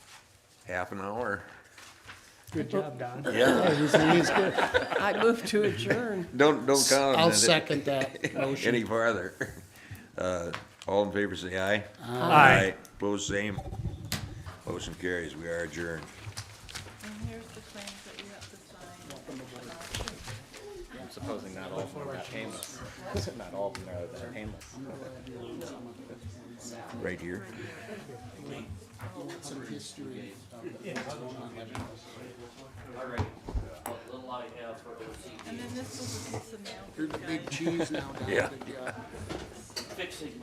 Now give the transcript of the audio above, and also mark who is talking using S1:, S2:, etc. S1: half an hour.
S2: Good job, Don.
S1: Yeah.
S2: Everything is good.
S3: I move to adjourn.
S1: Don't, don't count on
S2: I'll
S1: it
S2: second that
S1: any
S2: motion.
S1: farther. Uh, All in favor, say aye.
S2: Aye.
S1: Opposed, same. Motion carries. We are adjourned.
S4: And here's the claims that you have to sign.
S5: Supposing not all of them are painless. Not all of them are that painless.
S1: Right here.
S2: Some history of the-
S4: And then this was a piece of mail.
S2: You're the big cheese now, Don.
S1: Yeah.
S2: Good job.